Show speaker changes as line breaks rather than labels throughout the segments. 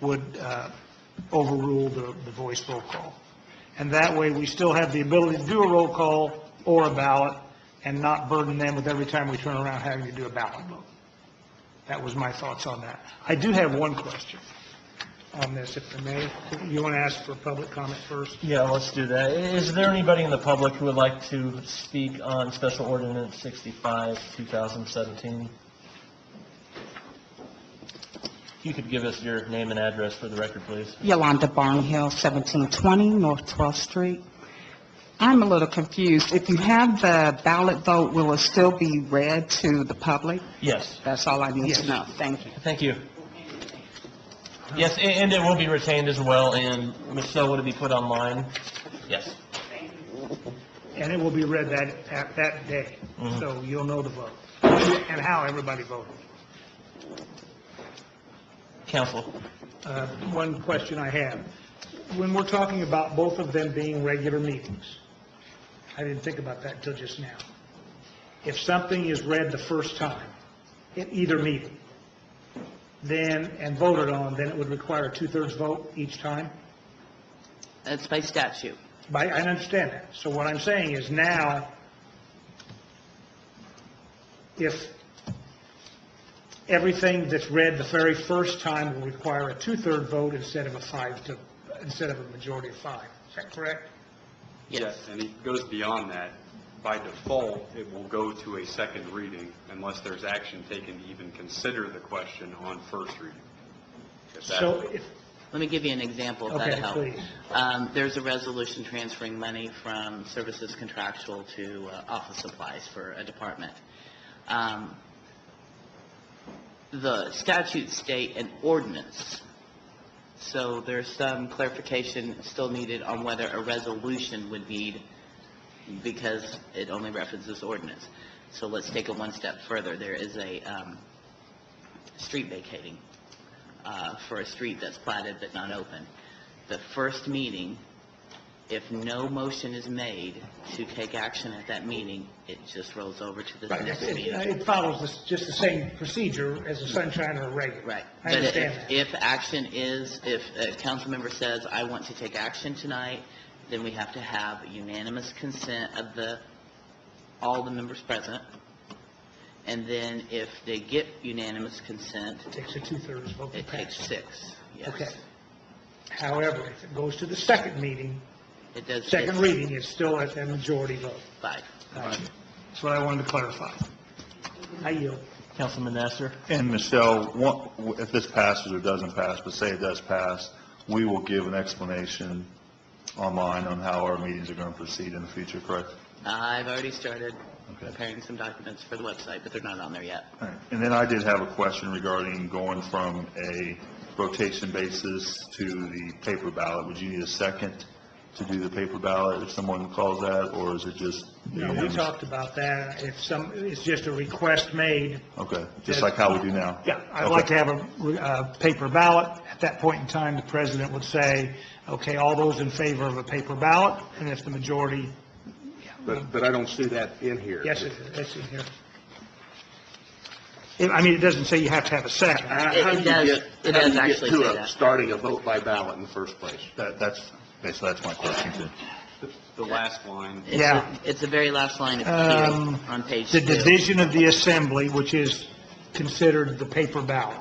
would uh, overrule the, the voice roll call. And that way, we still have the ability to do a roll call or a ballot and not burden them with every time we turn around having to do a ballot vote. That was my thoughts on that. I do have one question on this, if I may. You want to ask for public comment first?
Yeah, let's do that. I- Is there anybody in the public who would like to speak on Special Ordinance 65, 2017? You could give us your name and address for the record, please.
Yolanda Barnhill, 1720 North 12th Street. I'm a little confused. If you have the ballot vote, will it still be read to the public?
Yes,
That's all I need
Yes.
to know. Thank you.
thank you. Yes, a- and it will be retained as well, and Michelle, would it be put online? Yes.
And it will be read that, at that day,
Mhm.
so you'll know the vote and how everybody voted.
Counsel?
Uh, One question I have. When we're talking about both of them being regular meetings, I didn't think about that until just now. If something is read the first time at either meeting, then, and voted on, then it would require a two-thirds vote each time?
It's by statute.
By, I understand that. So what I'm saying is now, if everything that's read the very first time will require a two-third vote instead of a five to, instead of a majority of five, is that correct?
Yes.
And it goes beyond that. By default, it will go to a second reading unless there's action taken to even consider the question on first reading. If that-
So if,
Let me give you an example if
okay,
that'll help.
please.
Um, There's a resolution transferring money from services contractual to uh, office supplies for a department. Um, The statutes state an ordinance, so there's some clarification still needed on whether a resolution would need, because it only references ordinance. So let's take it one step further. There is a um, street vacating uh, for a street that's platted but not open. The first meeting, if no motion is made to take action at that meeting, it just rolls over to the
Right, it-
next meeting.
It follows this- just the same procedure as a sunshine or a regular.
Right.
I understand
But
that.
if- if action is, if a council member says, I want to take action tonight, then we have to have unanimous consent of the, all the members present. And then if they get unanimous consent,
It Takes a two-thirds vote to
it takes
pass.
six. Yes.
Okay. However, if it goes to the second meeting,
It does.
second
it's
reading, it's still at a majority vote.
Five.
That's what I wanted to clarify. I yield.
Councilman Nasser?
And Michelle, one- if this passes or doesn't pass, but say it does pass, we will give an explanation online on how our meetings are going to proceed in the future, correct?
I've already started
Okay.
preparing some documents for the website, but they're not on there yet.
All right. And then I did have a question regarding going from a rotation basis to the paper ballot. Would you need a second to do the paper ballot if someone calls that, or is it just?
No, we talked about that. If some, it's just a request made.
Okay, just like how we do now?
Yeah, I'd like
Okay.
to have a, uh paper ballot. At that point in time, the president would say, okay, all those in favor of a paper ballot, and if the majority,
But, but I don't see that in here.
yes, it- it's in here. It- I mean, it doesn't say you have to have a second.
How-
It-
how
it
do you
does-
get-
it
how do
does
you get
actually
to
say
a-
that.
Starting a vote by ballot in the first place.
That, that's, okay, so that's my question too.
The last line,
It's
Yeah.
the- It's the very last line of Q
Um,
on page
The
two.
division of the assembly, which is considered the paper ballot,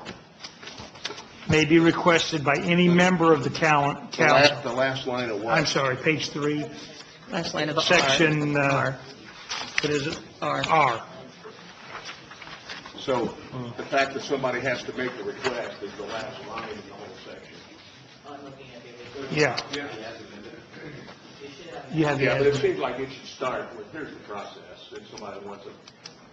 may be requested by any member of the cal-
The last, the
council.
last line of
I'm
what?
sorry, page three.
Last line of
section, uh, what is it?
R.
R.
So the fact that somebody has to make the request is the last line in the whole section.
Yeah. You have
Yeah, but it
the,
seems like it should start with, here's the process, if somebody wants a,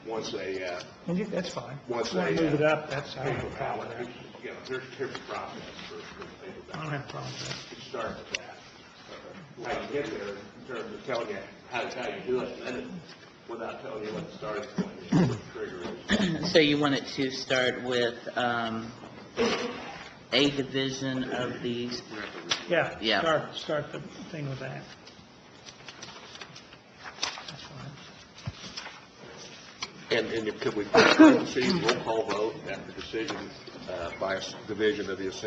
wants a, uh,
and you- that's fine.
Once
If you wanna
they,
Move
uh,
it up, that's, I don't have
paper
a problem
ballot,
with that.
here's, you know, here's, here's the process for, for the paper
I
ballot.
don't have a problem with that.
You start with that. How you get there in terms of telling you how, how you do it, and then without telling you what the starting point is, what the trigger is.
So you want it to start with um, a division of these,
Yeah.
Yeah.
Start, start the thing with that. That's fine.
And, and could we, see, roll call vote after decision, uh, by a s- division of the assembly